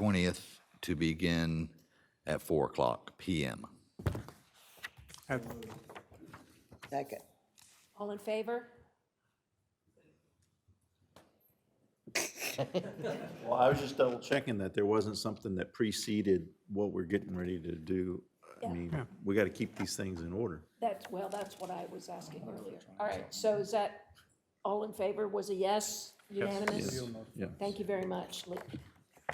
20th to begin at 4 o'clock PM. At- Second. All in favor? Well, I was just double checking that there wasn't something that preceded what we're getting ready to do. I Yeah. mean, we got to keep these things in order. That's, well, that's what I was asking earlier. All right, so is that, all in favor was a yes, unanimous? Yeah. Thank you very much. Lee.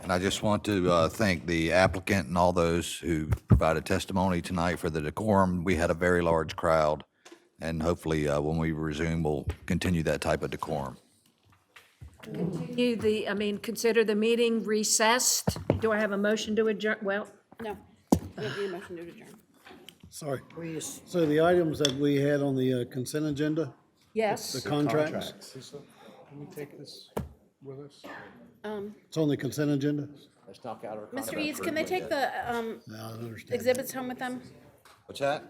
And I just want to uh, thank the applicant and all those who provided testimony tonight for the decorum. We had a very large crowd, and hopefully, uh, when we resume, we'll continue that type of decorum. You, the, I mean, consider the meeting recessed. Do I have a motion to adjourn? Well, No, we don't need a motion to adjourn. Sorry. We is- So the items that we had on the uh, consent agenda, the yes, contracts, Can we take this with us? it's on the consent agenda? Mr. Eads, can they take the um, No, I don't understand. exhibits home with them? What's that?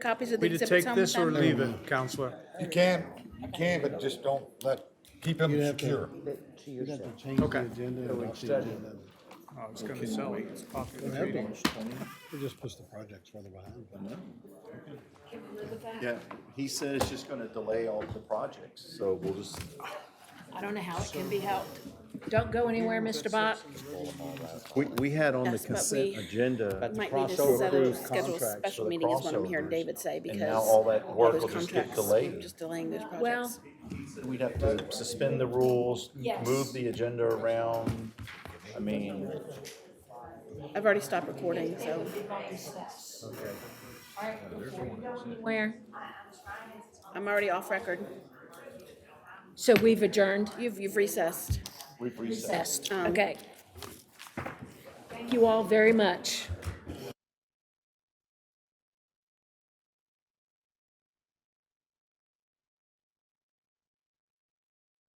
Copies of the We to exhibits take home with this or them? leave it, Counselor? You can, you can, but just don't let, keep them secure. You got to change the Okay. agenda. and adopt the agenda. I was gonna sell it. Oh, It's popular. It just puts the projects further behind. Yeah, he said it's just going to delay all the projects, so we'll just. I don't know how it can be helped. Don't go anywhere, Mr. Bach. We, we had on the Yes, but consent we agenda, Might need to set a schedule a special meeting is what I'm hearing crossovers. David say because. now all that all work those will just get contracts, delayed. we're Just delaying those Well, projects. we'd have to suspend the rules, Yes. move the agenda around. I mean, I've already stopped recording, so. where? I'm already off record. So we've adjourned? You've, you've recessed. we've reset. Um, Recessed, okay. Thank you all very much.